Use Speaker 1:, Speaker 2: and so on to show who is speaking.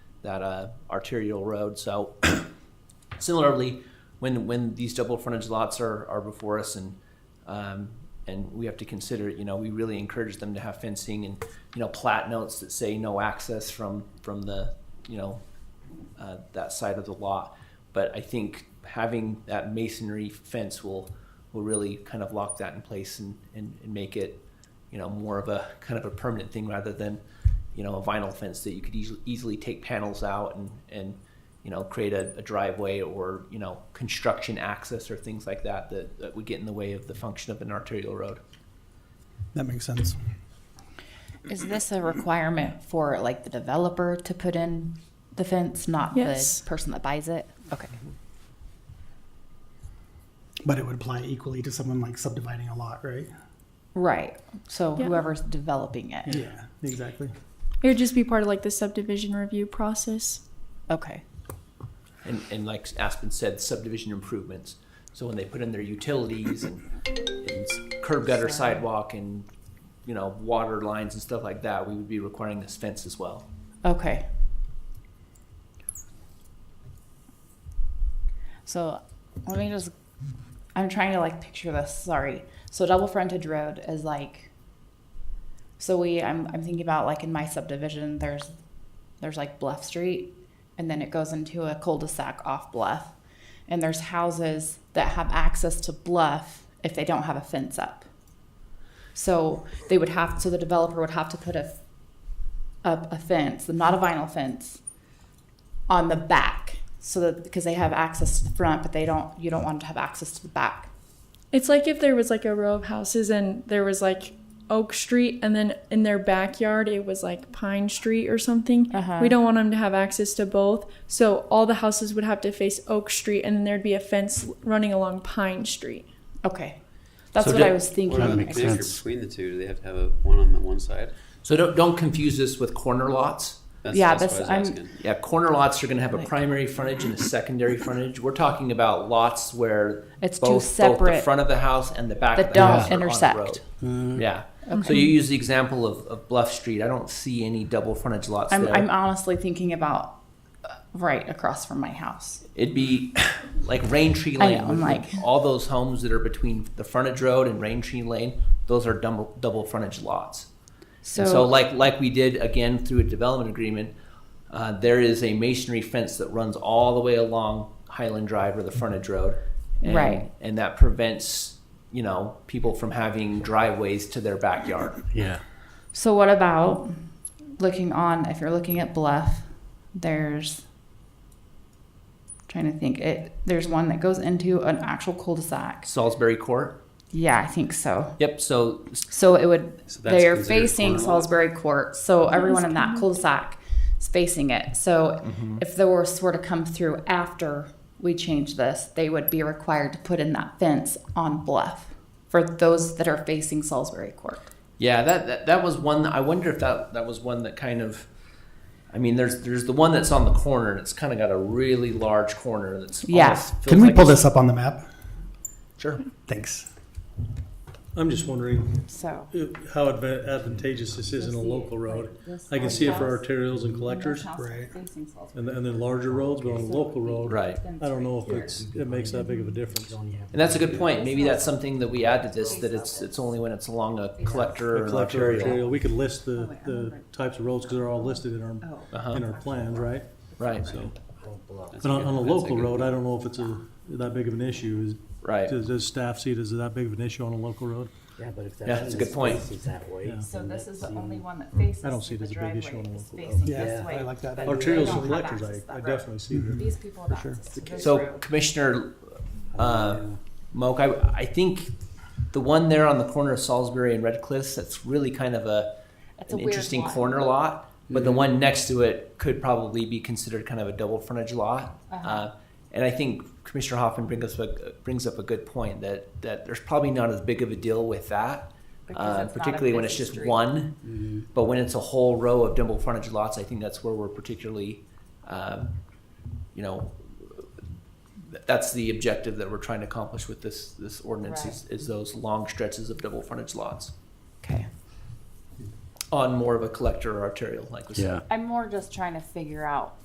Speaker 1: that uh, arterial road. So similarly, when when these double frontage lots are are before us and um, and we have to consider, you know, we really encourage them to have fencing and you know plat notes that say no access from from the you know uh, that side of the lot. But I think having that masonry fence will will really kind of lock that in place and, and, and make it you know more of a kind of a permanent thing rather than you know a vinyl fence that you could easily easily take panels out and and you know create a, a driveway or you know construction access or things like that, that that would get in the way of the function of an arterial road.
Speaker 2: That makes sense.
Speaker 3: Is this a requirement for like the developer to put in the fence, not
Speaker 4: Yes.
Speaker 3: the person that buys it? Okay.
Speaker 2: But it would apply equally to someone like subdividing a lot, right?
Speaker 3: Right. So
Speaker 4: Yeah.
Speaker 3: whoever's developing it.
Speaker 2: Yeah, exactly.
Speaker 4: It would just be part of like the subdivision review process.
Speaker 3: Okay.
Speaker 1: And, and like Aspen said, subdivision improvements. So when they put in their utilities and, and curb gutter sidewalk and, you know, water lines and stuff like that, we would be requiring this fence as well.
Speaker 3: Okay. So let me just, I'm trying to like picture this. Sorry. So double frontage road is like, so we, I'm, I'm thinking about like in my subdivision, there's, there's like Bluff Street and then it goes into a cul-de-sac off Bluff. And there's houses that have access to Bluff if they don't have a fence up. So they would have, so the developer would have to put a up a fence, not a vinyl fence, on the back, so that because they have access to the front, but they don't. You don't want to have access to the back.
Speaker 4: It's like if there was like a row of houses and there was like Oak Street, and then in their backyard it was like Pine Street or something.
Speaker 3: Uh-huh.
Speaker 4: We don't want them to have access to both, so all the houses would have to face Oak Street, and then there'd be a fence running along Pine Street.
Speaker 3: Okay, that's
Speaker 1: So
Speaker 3: what
Speaker 1: do-
Speaker 3: I was thinking.
Speaker 5: What about the
Speaker 3: I
Speaker 2: makes
Speaker 3: guess.
Speaker 5: mixture
Speaker 2: sense.
Speaker 5: between the two? Do they have to have a one on the one side?
Speaker 1: So don't, don't confuse this with corner lots.
Speaker 5: That's,
Speaker 3: Yeah,
Speaker 5: that's,
Speaker 3: that's-
Speaker 5: what I was
Speaker 3: I'm-
Speaker 5: asking.
Speaker 1: Yeah, corner lots are gonna have a
Speaker 3: Right.
Speaker 1: primary frontage and a secondary frontage. We're talking about lots where
Speaker 3: It's two
Speaker 1: both, both the
Speaker 3: separate-
Speaker 1: front of the house and the back
Speaker 3: that
Speaker 1: of the house
Speaker 3: don't
Speaker 1: are on the
Speaker 3: intersect.
Speaker 1: road. Yeah. So you use the example of, of Bluff Street. I don't see any double frontage lots
Speaker 3: I'm,
Speaker 1: there.
Speaker 3: I'm honestly thinking about uh, right across from my house.
Speaker 1: It'd be like Rain Tree
Speaker 3: I
Speaker 1: Lane.
Speaker 3: know, I'm
Speaker 1: with
Speaker 3: like-
Speaker 1: all those homes that are between the frontage road and Rain Tree Lane. Those are double double frontage lots.
Speaker 3: So,
Speaker 1: So, so like like we did again through a development agreement, uh, there is a masonry fence that runs all the way along Highland Drive or the frontage road, and,
Speaker 3: Right.
Speaker 1: And that prevents you know people from having driveways to their backyard.
Speaker 2: Yeah.
Speaker 3: so what about looking on? If you're looking at Bluff, there's trying to think. It there's one that goes into an actual cul-de-sac.
Speaker 1: Salisbury Court.
Speaker 3: Yeah, I think so.
Speaker 1: Yep. So
Speaker 3: So it would
Speaker 5: So that's
Speaker 3: they are
Speaker 5: considered
Speaker 3: facing
Speaker 5: corner lot?
Speaker 3: Salisbury Court, so everyone in that
Speaker 4: kinda-
Speaker 3: cul-de-sac is facing it. So
Speaker 6: Mm-hmm.
Speaker 3: if the worst were to come through after we change this, they would be required to put in that fence on Bluff for those that are facing Salisbury Court.
Speaker 1: Yeah, that, that that was one. I wonder if that that was one that kind of. I mean, there's there's the one that's on the corner, and it's kind of got a really large corner. That's
Speaker 3: Yeah.
Speaker 1: almost feels
Speaker 2: Can we
Speaker 1: like
Speaker 2: pull
Speaker 1: it's-
Speaker 2: this up on the map?
Speaker 1: Sure.
Speaker 2: Thanks.
Speaker 6: I'm just wondering
Speaker 3: So
Speaker 6: uh, how adva- advantageous this is in a local road. I can see it for arterials and collectors
Speaker 2: right.
Speaker 6: and, and then larger roads, but on a local road,
Speaker 1: Right,
Speaker 6: I don't know if it's, it makes that big of a difference.
Speaker 1: and that's a good point. Maybe that's something that we add to this that it's it's only when it's along a collector or
Speaker 6: A
Speaker 1: an
Speaker 6: collector or
Speaker 1: arterial.
Speaker 6: arterial, we could list the, the types of roads because they're all listed in
Speaker 3: Oh.
Speaker 6: our,
Speaker 1: Uh-huh.
Speaker 6: in our plans, right?
Speaker 1: Right,
Speaker 6: So,
Speaker 5: That's
Speaker 6: but on,
Speaker 5: good.
Speaker 6: on a
Speaker 5: That's
Speaker 6: local
Speaker 5: good
Speaker 6: road, I
Speaker 5: point.
Speaker 6: don't know if it's a, that big of an issue. Is-
Speaker 1: right.
Speaker 6: Does, does staff see it as that big of an issue on a local road?
Speaker 7: Yeah, but if that
Speaker 1: Yeah, that's a good point.
Speaker 7: is that way,
Speaker 6: Yeah.
Speaker 7: then
Speaker 3: this
Speaker 7: it's
Speaker 3: is the
Speaker 7: even-
Speaker 3: only one that faces
Speaker 6: I don't see it as a big issue on the local road.
Speaker 2: Yeah, I like that. idea.
Speaker 6: Arterials
Speaker 3: don't
Speaker 6: and
Speaker 3: have
Speaker 6: collectors,
Speaker 3: access to
Speaker 6: I,
Speaker 3: that
Speaker 6: I
Speaker 3: road.
Speaker 6: definitely see that.
Speaker 3: These people have access to this
Speaker 1: So
Speaker 3: road.
Speaker 1: Commissioner uh, Moak, I, I think the one there on the corner of Salisbury and Red Cliffs, that's really kind of a,
Speaker 3: That's a
Speaker 1: an
Speaker 3: weird
Speaker 1: interesting
Speaker 3: lot.
Speaker 1: corner lot. But the one next to it could probably be considered kind of a double frontage lot.
Speaker 3: Uh-huh.
Speaker 1: Uh, And I think Commissioner Hoffman brings us, a- brings up a good point that, that there's probably not as big of a deal with that.
Speaker 3: Because
Speaker 1: uh,
Speaker 3: it's not a
Speaker 1: Particularly when it's
Speaker 3: busy
Speaker 1: just
Speaker 3: street.
Speaker 1: one. But when it's a whole row of double frontage lots, I think that's where we're particularly, um, you know, th- that's the objective that we're trying to accomplish with this, this ordinance is, is those long stretches of double frontage lots
Speaker 3: Okay.
Speaker 1: on more of a collector or arterial, like we said.
Speaker 3: I'm more just trying to figure out